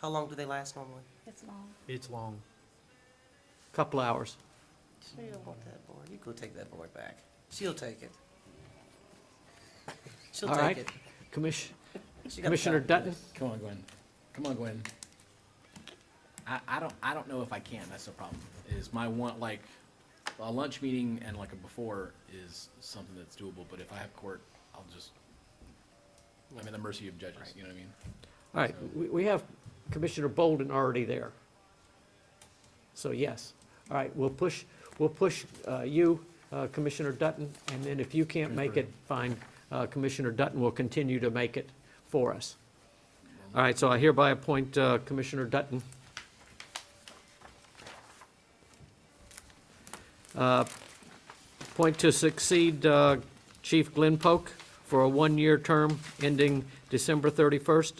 How long do they last normally? It's long. It's long. Couple hours. Sure you don't want that board. You go take that board back. She'll take it. She'll All take right. it. Commiss- She got the Commissioner time. Dutton? Come on, Gwen. Come on, Gwen. I, I don't, I don't know if I can, that's the problem, is my one, like, a lunch meeting and like a before is something that's doable, but if I have court, I'll just, I'm at the mercy of judges, you know what I mean? All right, we, we have Commissioner Bolden already there. So yes. All right, we'll push, we'll push uh, you, uh, Commissioner Dutton, and then if you can't make it, fine, uh, Commissioner Dutton will continue to make it for us. All right, so I hereby appoint uh, Commissioner Dutton. Uh, Appoint to succeed uh, Chief Glenn Polk for a one-year term ending December 31st,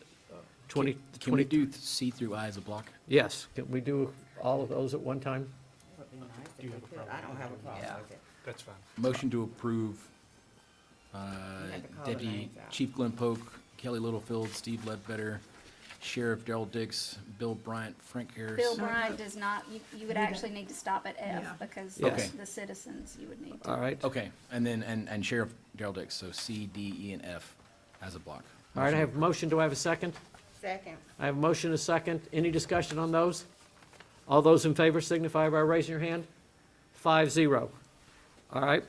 2020. Can we do see through I as a block? Yes, can we do all of those at one time? Would be nice if we could. I don't have a problem with it. That's fine. Motion to approve, uh, You have to call the Deputy names out. Chief Glenn Polk, Kelly Littlefield, Steve Ledbetter, Sheriff Daryl Dix, Bill Bryant, Frank Harris. Bill Bryant does not, you, you would actually need to stop at F because Yeah. Okay. the citizens, you would need to. All right. All Okay, and then, and, and Sheriff Daryl Dix, so C, D, E, and F as a block. right, I have a motion. Do I have a second? Second. I have a motion, and a second. Any discussion on those? All those in favor signify by raising your hand. Five, zero. All right.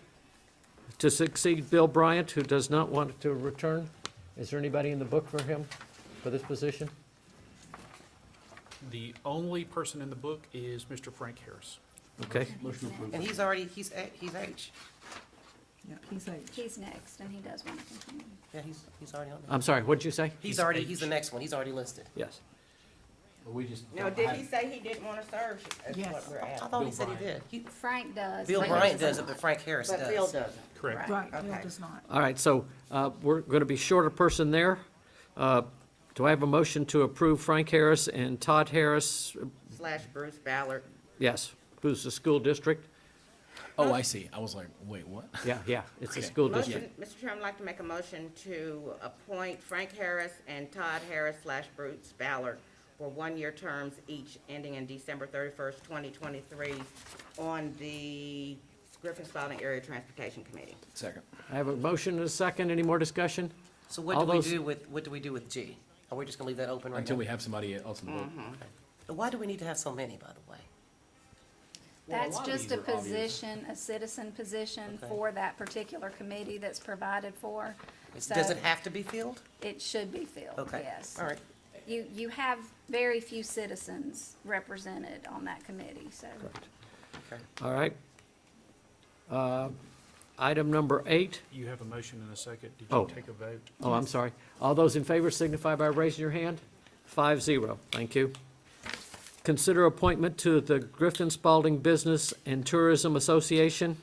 To succeed Bill Bryant, who does not want to return. Is there anybody in the book for him, for this position? The only person in the book is Mr. Frank Harris. Okay, Motion approved. And he's already, he's, A- he's H. Yeah, he's like, He's next and he does want to continue. Yeah, he's, he's already on there. I'm sorry, what'd you say? He's already, he's the next one. He's already listed. Yes. We just. No, did he say he didn't want to serve? Is what Yes. we're I asking. thought he Bill said he did. Bryant. He- Frank does. Bill but Bryant does does it, but not. Frank Harris does. But Bill doesn't. Correct. right, Bill okay. does not. All right, so uh, we're going to be short a person there. Uh, Do I have a motion to approve Frank Harris and Todd Harris? Slash Bruce Ballard. Yes, who's the school district? Oh, I see. I was like, wait, what? Yeah, yeah, it's the Okay. school district. Motion, Mr. Chairman, I'd like to make a motion to appoint Frank Harris and Todd Harris slash Bruce Ballard for one-year terms each ending in December thirty-first, twenty twenty-three on the Griffin Spalding Area Transportation Committee. Second. I have a motion and a second. Any more discussion? So what All do we those- do with, what do we do with G? Are we just gonna leave that open right now? Until we have somebody else in the book. Why do we need to have so many, by the way? That's lot of just these a are obvious. position, a citizen position Okay. for that particular committee that's provided for. It's- So Does it have to be filled? it should be filled, Okay. yes. All right. You, you have very few citizens represented on that committee, so. All right. Uh, Item number eight. You have a motion and a second. Did Oh. you take a vote? Oh, I'm sorry. All those in favor signify by raising your hand. Five zero. Thank you. Consider appointment to the Griffin Spalding Business and Tourism Association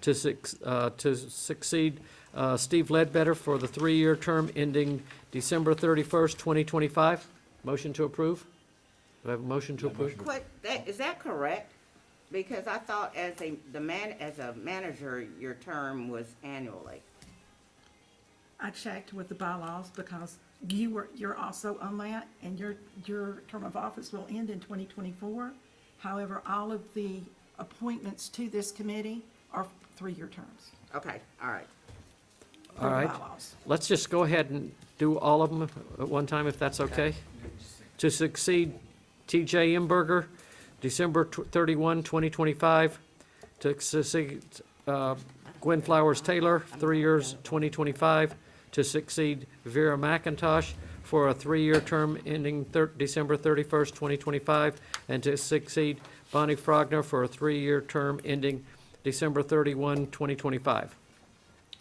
to suc- uh, to succeed uh, Steve Ledbetter for the three-year term ending December 31st, 2025. Motion to approve? Do I have a motion to approve? What, that, is that correct? Because I thought as a, the man, as a manager, your term was annually. I checked with the bylaws because you were, you're also on that and your, your term of office will end in twenty twenty-four. However, all of the appointments to this committee are three-year terms. Okay, all right. per the All right. bylaws. Let's just go ahead and do all of them at one time, if that's okay. To succeed TJ Imberger, December tw- 31, 2025. To succeed uh, Gwen Flowers Taylor, three years, 2025. To succeed Vera McIntosh for a three-year term ending thir- December 31st, 2025. And to succeed Bonnie Frogner for a three-year term ending December 31, 2025.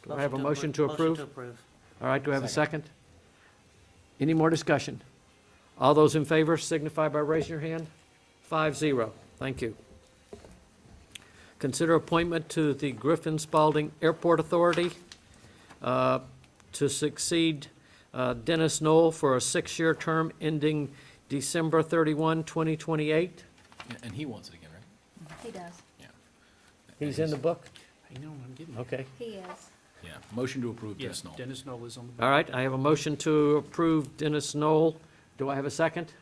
Do I have a motion to approve? Motion to approve. All right, do I have a second? Any more discussion? All those in favor signify by raising your hand. Five zero, thank you. Consider appointment to the Griffin Spalding Airport Authority uh, to succeed uh, Dennis Knoll for a six-year term ending December 31, 2028. And- And he wants it again, right? He does, He's in the book? Hang on, I'm getting. Okay. he is. Yeah. Motion to approve Yes, Dennis Knoll. Dennis Knoll is on the book. All right, I have a motion to approve Dennis Knoll. Do I have a second?